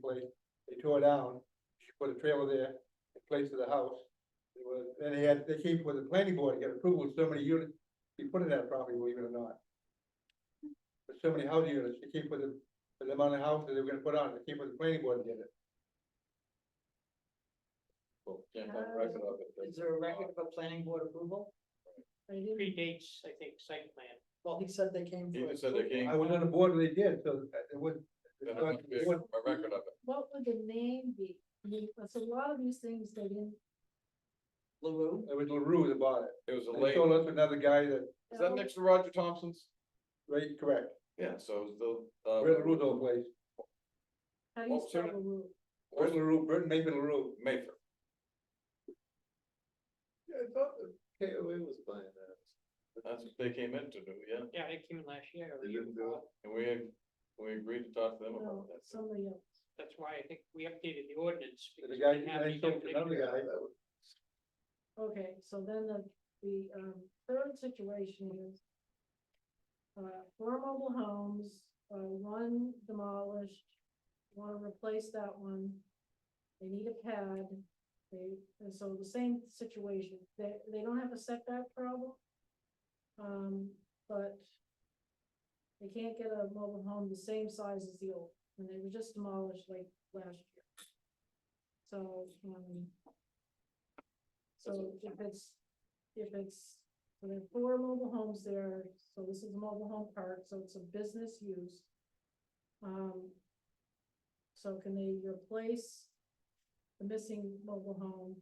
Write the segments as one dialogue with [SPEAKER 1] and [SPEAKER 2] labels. [SPEAKER 1] place, they tore it down, she put a trailer there in place of the house. It was, and they had, they came with the planning board, to get approval of so many units, he put in that property, believe it or not. For so many housing units, they came with the, with the amount of houses they were gonna put on, they came with the planning board and did it. Well, can't find a record of it, but-
[SPEAKER 2] Is there a record of a planning board approval?
[SPEAKER 3] predates, I think, site plan.
[SPEAKER 2] Well, he said they came.
[SPEAKER 4] He
[SPEAKER 2] for
[SPEAKER 4] just said they
[SPEAKER 2] approval.
[SPEAKER 4] came-
[SPEAKER 1] I was on the board when they did, so uh, it was.
[SPEAKER 4] Then I think we have A record of it.
[SPEAKER 5] What would the name be? Because a lot of these things they didn't.
[SPEAKER 2] LaRue,
[SPEAKER 1] It was LaRue that bought it.
[SPEAKER 4] It was a
[SPEAKER 1] They
[SPEAKER 4] late,
[SPEAKER 1] sold us another guy that,
[SPEAKER 4] is that next to Roger Thompson's?
[SPEAKER 1] right, correct,
[SPEAKER 4] Yeah, so it was the, uh.
[SPEAKER 1] Brett LaRue's old place,
[SPEAKER 5] How do
[SPEAKER 4] Well,
[SPEAKER 5] you spell
[SPEAKER 4] sir.
[SPEAKER 5] the rule?
[SPEAKER 1] Brett LaRue, Brett and Mayfield LaRue.
[SPEAKER 4] Mayfair.
[SPEAKER 1] Yeah, I thought the KOA was buying that.
[SPEAKER 4] That's what they came in to do, yeah,
[SPEAKER 3] Yeah, they came in last year. or
[SPEAKER 1] They
[SPEAKER 3] the year
[SPEAKER 1] didn't do
[SPEAKER 3] before.
[SPEAKER 4] and we, we agreed to talk to them
[SPEAKER 5] No,
[SPEAKER 4] about that.
[SPEAKER 5] somebody else.
[SPEAKER 3] That's why I think we updated the ordinance. because
[SPEAKER 1] The
[SPEAKER 3] we
[SPEAKER 1] guy,
[SPEAKER 3] didn't have
[SPEAKER 1] they
[SPEAKER 3] any
[SPEAKER 1] sold to another
[SPEAKER 3] definition.
[SPEAKER 1] guy.
[SPEAKER 5] Okay, so then the, the, um, third situation is. Uh, four mobile homes, uh, one demolished, wanna replace that one. They need a pad, they, and so the same situation, they, they don't have a setback problem. Um, but. They can't get a mobile home the same size as the old, and they were just demolished like last year. So, um. So if it's, if it's, so there are four mobile homes there, so this is a mobile home park, so it's a business use. Um. So can they replace the missing mobile home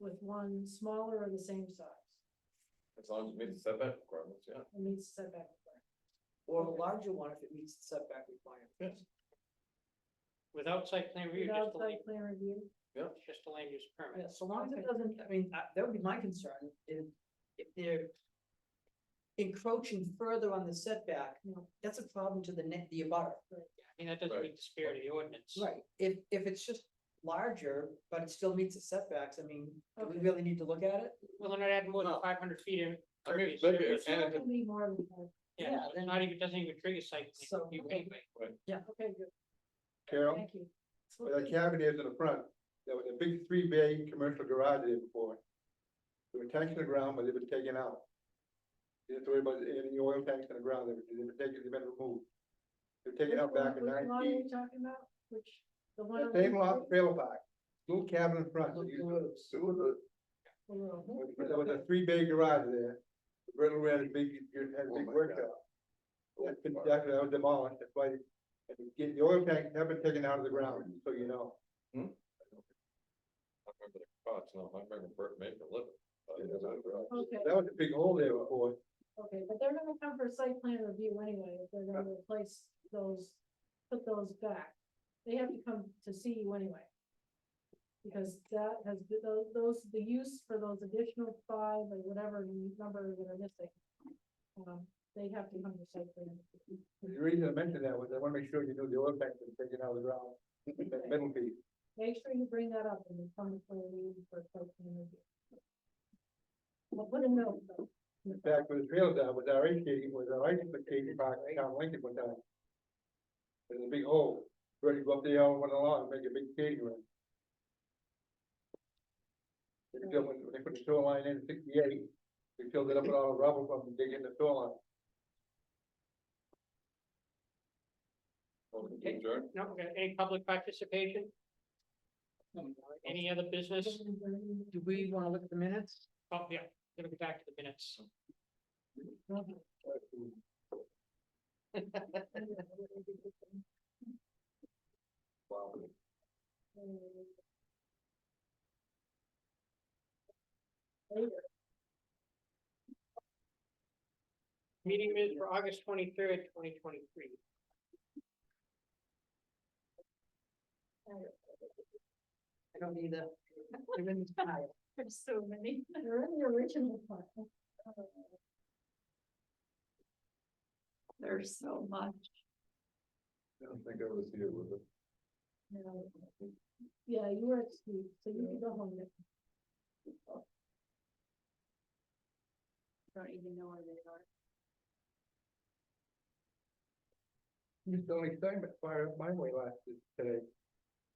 [SPEAKER 5] with one smaller or the same size?
[SPEAKER 4] As long as it meets the setback requirements, yeah.
[SPEAKER 5] It needs setback.
[SPEAKER 2] or a larger one if it meets the setback requirement.
[SPEAKER 3] Without site plan review,
[SPEAKER 5] Without
[SPEAKER 3] just a land,
[SPEAKER 5] site plan review,
[SPEAKER 3] just a land use
[SPEAKER 2] Yeah,
[SPEAKER 3] permit.
[SPEAKER 2] so long as
[SPEAKER 5] Okay.
[SPEAKER 2] it doesn't, I mean, I- that would be my concern, if, if they're encroaching further on the setback, you know, that's a problem to the net, the abutter.
[SPEAKER 3] I mean, that doesn't
[SPEAKER 4] Right.
[SPEAKER 3] meet the spirit of the ordinance.
[SPEAKER 2] Right. If, if it's just larger, but it still meets the setbacks, I mean, do we
[SPEAKER 5] Okay.
[SPEAKER 2] really need to look at it?
[SPEAKER 3] Well, they're not adding more than
[SPEAKER 4] No.
[SPEAKER 3] five hundred feet in.
[SPEAKER 4] I mean,
[SPEAKER 3] impervious
[SPEAKER 4] it's bigger,
[SPEAKER 3] surface.
[SPEAKER 4] and
[SPEAKER 5] that
[SPEAKER 4] it-
[SPEAKER 5] would be more than that.
[SPEAKER 3] Yeah,
[SPEAKER 2] yeah,
[SPEAKER 3] so
[SPEAKER 2] then-
[SPEAKER 3] it's not even, doesn't even trigger site plan
[SPEAKER 2] So-
[SPEAKER 3] review anyway.
[SPEAKER 5] Okay, good,
[SPEAKER 1] Carol,
[SPEAKER 5] thank you.
[SPEAKER 1] where that cabin is in the front, there was a big three bay commercial garage there before. They were tanks in the ground, but they've been taken out. You have to worry about any oil tanks in the ground, they've been taken, they've been removed. They've taken out back in
[SPEAKER 5] Which one- Which one are
[SPEAKER 1] nineteen,
[SPEAKER 5] you talking about? Which, the one? on the
[SPEAKER 1] same lot,
[SPEAKER 5] right
[SPEAKER 1] trailer park, little cabin in front.
[SPEAKER 2] Look
[SPEAKER 1] They used to-
[SPEAKER 2] LaRue's.
[SPEAKER 1] There was a-
[SPEAKER 5] or wrong?
[SPEAKER 1] There was a three bay garage there, the Riddle ran a big, had a
[SPEAKER 4] Oh
[SPEAKER 1] big
[SPEAKER 4] my
[SPEAKER 1] workshop. That's been, that was demolished, that's why, and the- the oil tanks have been taken out of the ground, so you know.
[SPEAKER 4] I remember the cots, no, I remember Bert Mayfair living. but uh, it was a garage.
[SPEAKER 5] Okay,
[SPEAKER 1] That was a big hole there before,
[SPEAKER 5] okay, but they're gonna come for site plan review anyway, if they're gonna replace those, put those back. They have to come to see you anyway. Because that has, been- tho- those, the use for those additional five or whatever number that are missing. Um, they have to come to site plan.
[SPEAKER 1] the reason I mentioned that was I wanna make sure you knew the oil tanks were taken out of the ground, that middle piece.
[SPEAKER 5] Make sure you bring that up when you come for a meeting for site plan review. Well, put a note though.
[SPEAKER 1] In fact, when the trailer down was our ice skating, was our ice skating park down Lincoln one time. There's a big hole, ready to go up there and went along and make a big skating rink. They filled, when they put the shoreline in sixty-eight, they filled it up with all the rubble from digging the shoreline.
[SPEAKER 4] Well, we adjourned.
[SPEAKER 3] No, we got any public participation, any other business?
[SPEAKER 2] Do we wanna look at the minutes?
[SPEAKER 3] Oh, yeah, gonna be back to the minutes.
[SPEAKER 4] Wow.
[SPEAKER 3] Meeting minutes for August twenty-third, twenty twenty-three.
[SPEAKER 2] I don't need a. They're in the file.
[SPEAKER 5] There's so many. They're in the original file. Uh, There's so much.
[SPEAKER 4] I don't think I was here with it.
[SPEAKER 5] Yeah, you were excused, so you can go home now. Don't even know where they are.
[SPEAKER 1] You still excited, fire up my way last, today.